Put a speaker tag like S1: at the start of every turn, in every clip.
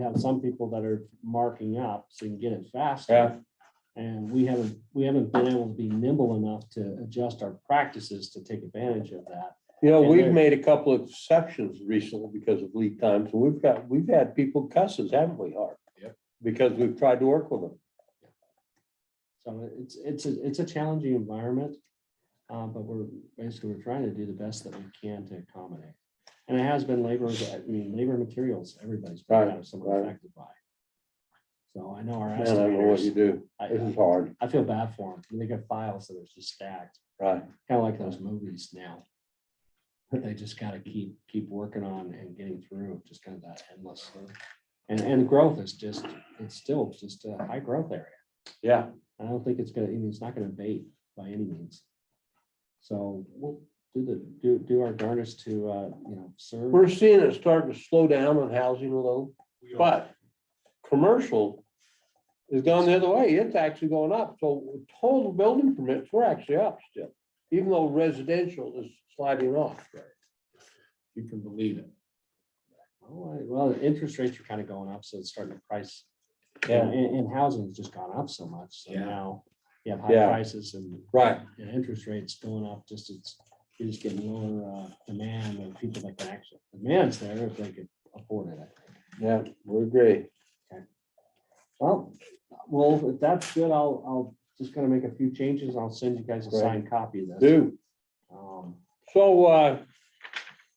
S1: You have some people that are marking up so you can get it faster. And we haven't, we haven't been able to be nimble enough to adjust our practices to take advantage of that.
S2: You know,
S1: And
S2: we've
S1: then-
S2: made a couple of exceptions recently because of lead times, and we've got, we've had people cusses, haven't we, Art?
S3: Yep.
S2: Because we've tried to work with them.
S1: So it's, it's, a it's a challenging environment. uh, but we're, basically, we're trying to do the best that we can to accommodate. And it has been labor, I mean, labor and materials, everybody's been
S2: Right,
S1: kind of somewhat
S2: right.
S1: affected by. So I know our
S2: Man, I don't know what you
S1: estimators,
S2: do. This
S1: I,
S2: is hard,
S1: I feel bad for them. They got files that are just stacked.
S2: right?
S1: kind of like those movies now. That they just gotta keep, keep working on and getting through, just kind of that endless. loop. And, and growth is just, it's still just a high growth area.
S2: Yeah,
S1: I don't think it's gonna, I mean, it's not gonna abate by any means. So we'll do the, do, do our darndest to, uh, you know, serve.
S2: we're seeing it starting to slow down on housing a little,
S3: We are-
S2: but commercial is going the other way. It's actually going up. So total building permits, we're actually up still, even though residential is sliding off.
S3: You can believe it.
S1: Oh, I- Well, the interest rates are kind of going up, so it's starting to price.
S2: Yeah.
S1: And, and housing's just gone up so much, so
S3: Yeah.
S1: now you have high
S2: Yeah.
S1: prices and
S2: Right.
S1: you know, interest rates going up, just it's, you're just getting lower uh, demand of people that can actually, demand's there if they could afford it, I think.
S2: Yeah, we're great.
S1: Well, well, if that's good, I'll, I'll just gonna make a few changes. I'll send you guys a
S2: Great.
S1: signed copy of this.
S2: Do.
S1: Um,
S2: So, uh,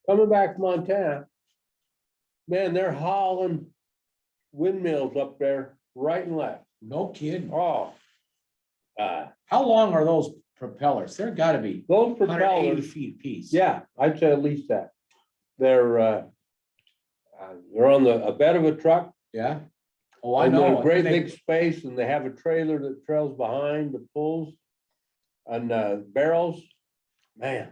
S2: coming back from Montana, man, they're hauling windmills up there, right and left.
S3: No kidding.
S2: Oh. Uh,
S3: How long are those propellers? They're gotta be
S2: those
S3: hundred eighty
S2: propellers,
S3: feet piece.
S2: yeah, I'd say at least that. They're, uh, uh, they're on the, a bed of a truck.
S3: Yeah. Oh, I
S2: and they're
S3: know.
S2: a Great big space and they have a trailer that trails behind that pulls and, uh, barrels. Man,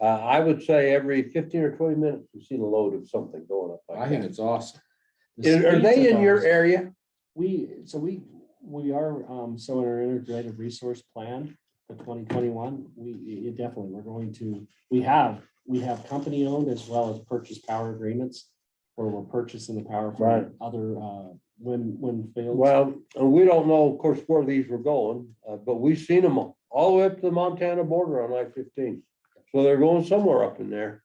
S2: uh, I would say every fifteen or twenty minutes, we see a load of something going up
S3: I
S2: like
S3: think
S2: that.
S3: it's awesome.
S1: the
S2: Is- Are they
S1: speeds of
S2: in your
S1: those-
S2: area?
S1: We, so we, we are, um, so in our integrated resource plan for twenty twenty-one, we, you definitely, we're going to, we have, we have company owned as well as purchase power agreements. Where we're purchasing the power
S2: Right.
S1: from other, uh, wind, wind fields.
S2: Well, uh, we don't know, of course, where these were going, uh, but we've seen them all all the way up to the Montana border on I fifteen. So they're going somewhere up in there.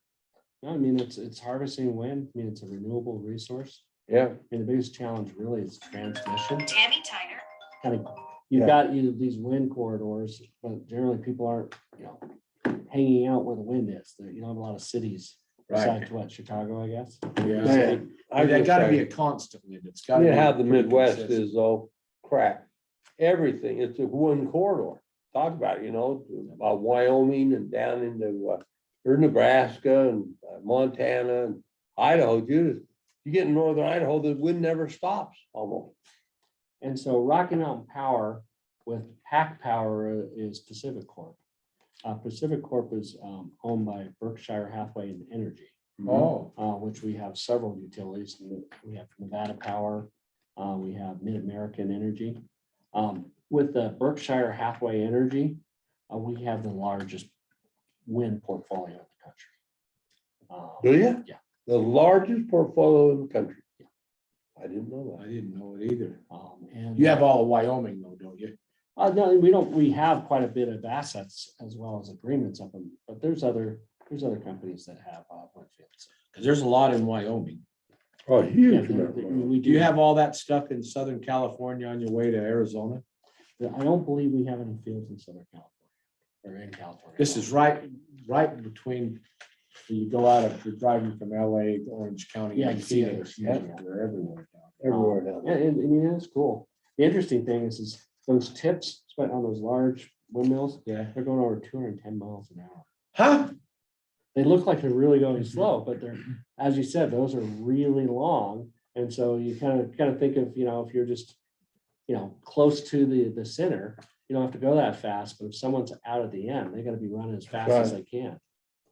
S1: No, I mean, it's, it's harvesting wind, I mean, it's a renewable resource.
S2: Yeah,
S1: I mean, the biggest challenge really is transmission.
S4: Tammy Tyner.
S1: Kind of, you've
S2: Yeah.
S1: got you these wind corridors, but generally people aren't, you know, hanging out where the wind is. There- You don't have a lot of cities besides what, Chicago, I guess.
S3: Yeah.
S2: Yeah. I
S3: That
S2: just
S3: gotta
S2: say-
S3: be a constant. wind. It's gotta.
S2: You
S3: be
S2: know how the
S3: pretty
S2: Midwest
S3: consistent.
S2: is though, crap. Everything, it's a one corridor. Talk about, it, you know, uh, Wyoming and down into, uh, or Nebraska and uh, Montana and Idaho, Judith. You get in northern Idaho, the wind never stops almost.
S1: And so Rocky Mountain Power with Pack Power is Pacific Corp. Uh, Pacific Corp is, um, owned by Berkshire Hathaway and Energy.
S3: Oh,
S1: uh, which we have several utilities. We have Nevada Power, uh, we have Mid-American Energy. Um, With the Berkshire Hathaway Energy, uh, we have the largest wind portfolio in the country. Um,
S2: Do you?
S1: Yeah.
S2: The largest portfolio in the country.
S1: Yeah.
S2: I didn't know
S3: I
S2: that.
S3: didn't know it either.
S1: um, And.
S3: You have all of Wyoming though, don't you?
S1: Uh, no, we don't, we have quite a bit of assets as well as agreements of them, but there's other, there's other companies that have uh, wind fields.
S3: Cause there's a lot in Wyoming.
S2: Oh,
S1: Yeah,
S2: huge.
S1: we-
S2: amount.
S1: we
S3: Do you have all that stuff in Southern California on your way to Arizona?
S1: I don't believe we have any fields in Southern California or in California.
S3: This is right, right between, you go out of, you're driving from LA, Orange County.
S1: Yeah, I
S3: and
S1: can see it.
S3: Phoenix,
S1: Yeah.
S3: They're everywhere now.
S2: Everywhere down
S1: Um, Yeah,
S2: there.
S1: and, I mean, that's cool. The interesting thing is, is those tips spent on those large windmills,
S3: Yeah.
S1: they're going over two hundred and ten miles an hour.
S3: Huh?
S1: They look like they're really going slow, but they're, as you said, those are really long. And so you kind of, kind of think of, you know, if you're just, you know, close to the, the center, you don't have to go that fast, but if someone's out at the end, they gotta be running as fast as they can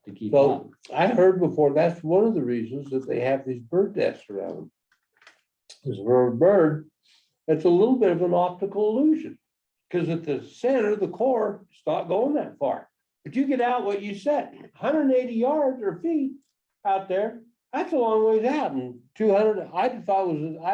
S1: to keep
S2: So-
S1: up.
S2: I heard before, that's one of the reasons that they have these bird nests around. them. Is for a bird, it's a little bit of an optical illusion, because at the center, the core, it's not going that far. But you get out what you said, hundred and eighty yards or feet out there, that's a long ways out, and two hundred, I thought it was, I